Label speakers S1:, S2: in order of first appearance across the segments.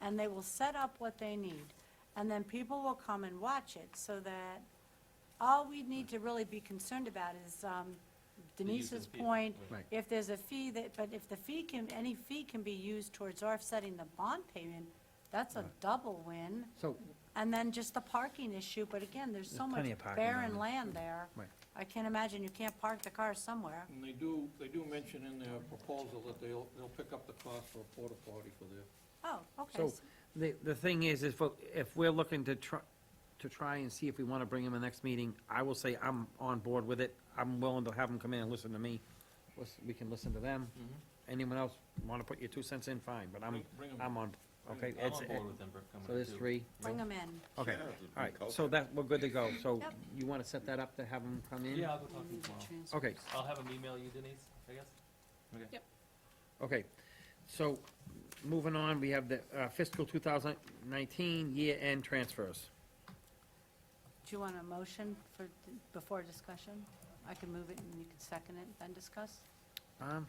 S1: and they will set up what they need. And then people will come and watch it, so that all we need to really be concerned about is um, Denise's
S2: people,
S1: point.
S3: Right.
S1: If there's a fee that, but if the fee can, any fee can be used towards offsetting the bond payment, that's a double win.
S3: So,
S1: And then just the parking issue, but again, there's so
S3: There's
S1: much
S3: plenty of parking
S1: barren
S3: on it.
S1: land there.
S3: Right.
S1: I can't imagine you can't park the car somewhere.
S2: And they do, they do mention in their proposal that they'll, they'll pick up the cost for a porta potty for their
S1: Oh, okay.
S3: so, the, the thing is, is for- if we're looking to try, to try and see if we want to bring him in the next meeting, I will say I'm on board with it. I'm willing to have him come in and listen to me. Listen- We can listen to them. Anyone else want to put your two cents in, fine, but Mm-hmm. I'm,
S2: Bring- bring 'em.
S3: I'm on, okay?
S4: I'm
S3: it's-
S4: on board with them coming
S3: So there's
S4: too.
S3: three,
S1: Bring them in.
S3: okay, all right, so that, we're good to go. So you want to set that up to have him come in?
S4: Yeah, I'll go talk to you tomorrow.
S3: Okay,
S4: I'll have them email you, Denise, I guess.
S3: Okay, so, moving on, we have the uh, fiscal two thousand nineteen year-end transfers.
S1: Do you want a motion for, before discussion? I can move it and you can second it, then discuss?
S3: Um,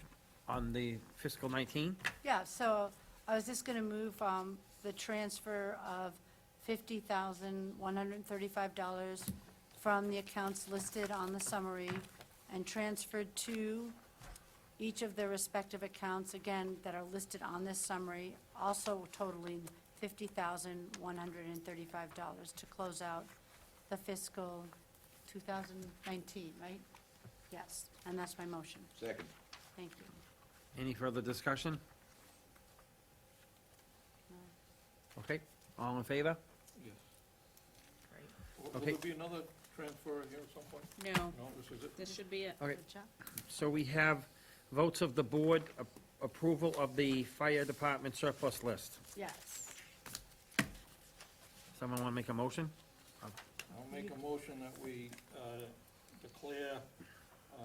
S3: on the fiscal nineteen,
S1: Yeah, so I was just going to move um, the transfer of $50,135 from the accounts listed on the summary and transferred to each of their respective accounts, again, that are listed on this summary, also totaling $50,135 to close out the fiscal 2019, right? Yes, and that's my motion.
S5: Second.
S1: Thank you.
S3: any further discussion? Okay, all in favor?
S2: Yes.
S6: Great.
S2: Will- Will
S3: Okay.
S2: there be another transfer here at some point?
S6: No,
S2: No, this is it?
S6: this should be it.
S3: Okay,
S1: Good job.
S3: so we have votes of the board, a- approval of the fire department surplus list.
S1: Yes.
S3: Someone wanna make a motion?
S2: I'll make a motion that we uh, declare uh,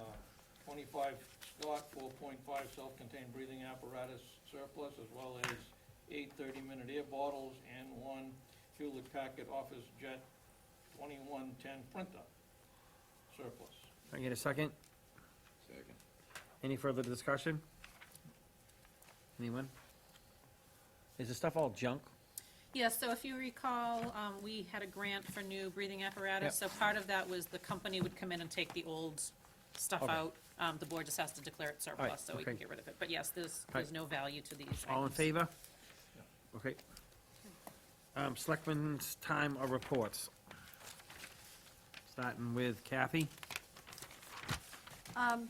S2: 25 Scott 4.5 self-contained breathing apparatus surplus, as well as eight 30-minute air bottles and one Hewlett Packard Office Jet 2110 printer surplus.
S3: Can I get a second?
S5: Second.
S3: Any further discussion? Anyone? Is this stuff all junk?
S6: Yeah, so if you recall, um, we had a grant for new breathing apparatus, so part of that was the company would come in and take the old stuff
S3: Okay.
S6: out. Um, the board just has to declare it
S3: right,
S6: surplus, so we can
S3: okay.
S6: get rid of it. But yes, there's,
S3: right.
S6: there's no value to these
S3: All in
S6: items.
S3: favor? Okay. Um, selectmen's time of reports. Starting with Kathy.
S1: Um,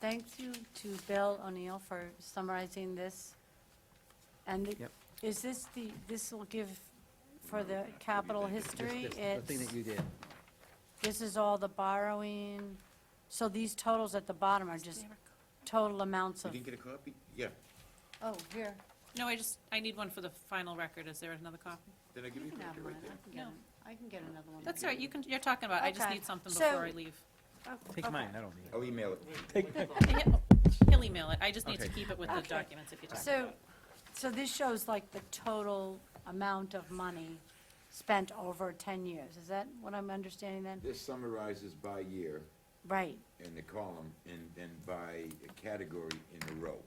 S1: Thank you to Bill O'Neill for summarizing this. And the-
S3: Yep.
S1: is this the, this will give for the capital
S3: This-
S1: history?
S3: this- The thing that
S1: It's,
S3: you did.
S1: this is all the borrowing. So these totals at the bottom are just total amounts
S5: You
S1: of,
S5: didn't get a copy? Yeah.
S1: oh, here.
S6: No, I just, I need one for the final record. Is there another copy?
S5: Did I
S1: You
S5: give you
S1: can have
S5: that
S1: one.
S5: right there?
S1: I can get
S6: No.
S1: it. I can get another one.
S6: That's all right, you can, you're talking about, I just
S1: Okay.
S6: need something
S1: So-
S6: before I leave.
S1: Oh,
S3: Take
S1: okay.
S3: mine, I don't need it.
S5: I'll email it.
S6: Yeah, He'll email it. I just need to
S3: Okay.
S6: keep it with the
S1: Okay.
S6: documents if you just.
S1: So, so this shows like the total amount of money spent over 10 years. Is that what I'm understanding then?
S5: This summarizes by year
S1: Right,
S5: in the column and then by category in the row.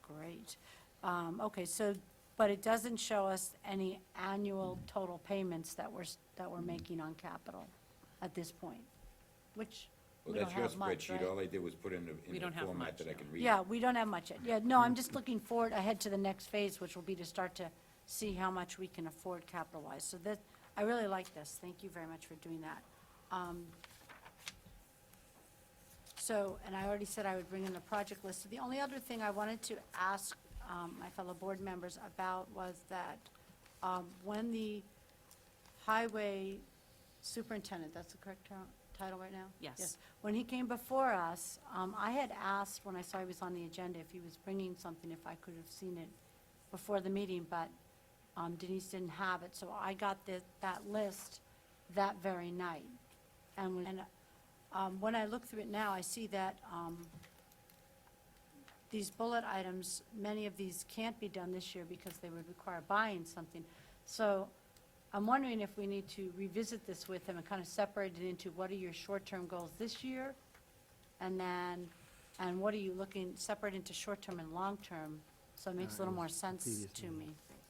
S1: great. Um, Okay, so, but it doesn't show us any annual total payments that we're, s- that
S5: Mm-hmm.
S1: we're making on capital at this point, which
S5: Well,
S1: we don't
S5: that's your
S1: have much,
S5: spreadsheet. All
S1: right?
S5: I did was put in the,
S6: We
S5: in the
S6: don't have
S5: format
S6: much,
S5: that I
S6: no.
S5: can read.
S1: Yeah, we don't have much yet. Yeah, no, I'm just looking forward ahead to the next phase, which will be to start to see how much we can afford capital-wise. So that, I really like this. Thank you very much for doing that. Um, So, and I already said I would bring in the project list. The only other thing I wanted to ask um, my fellow board members about was that um, when the highway superintendent, that's the correct ter- title right now?
S6: Yes.
S1: When he came before us, um, I had asked, when I saw he was on the agenda, if he was bringing something, if I could have seen it before the meeting, but um, Denise didn't have it, so I got the- that list that very night. And when- and, um, when I look through it now, I see that um, these bullet items, many of these can't be done this year because they would require buying something. So I'm wondering if we need to revisit this with him and kind of separate it into what are your short-term goals this year? And then, and what are you looking, separate into short-term and long-term, so it makes a little more sense
S3: previous
S1: to me.